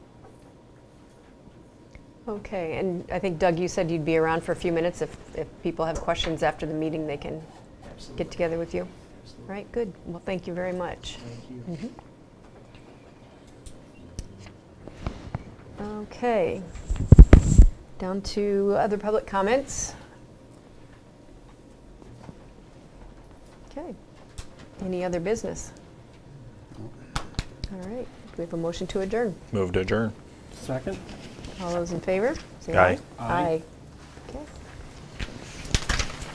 Okay, and I think Doug, you said you'd be around for a few minutes. If, if people have questions after the meeting, they can Absolutely. get together with you. All Absolutely. right, good. Well, thank you very much. Thank you. Mm-hmm. Okay. Down to other public comments. Okay. Any other business? All right, do we have a motion to adjourn? Move to adjourn. Second? All those in favor? say Aye. Aye. Aye.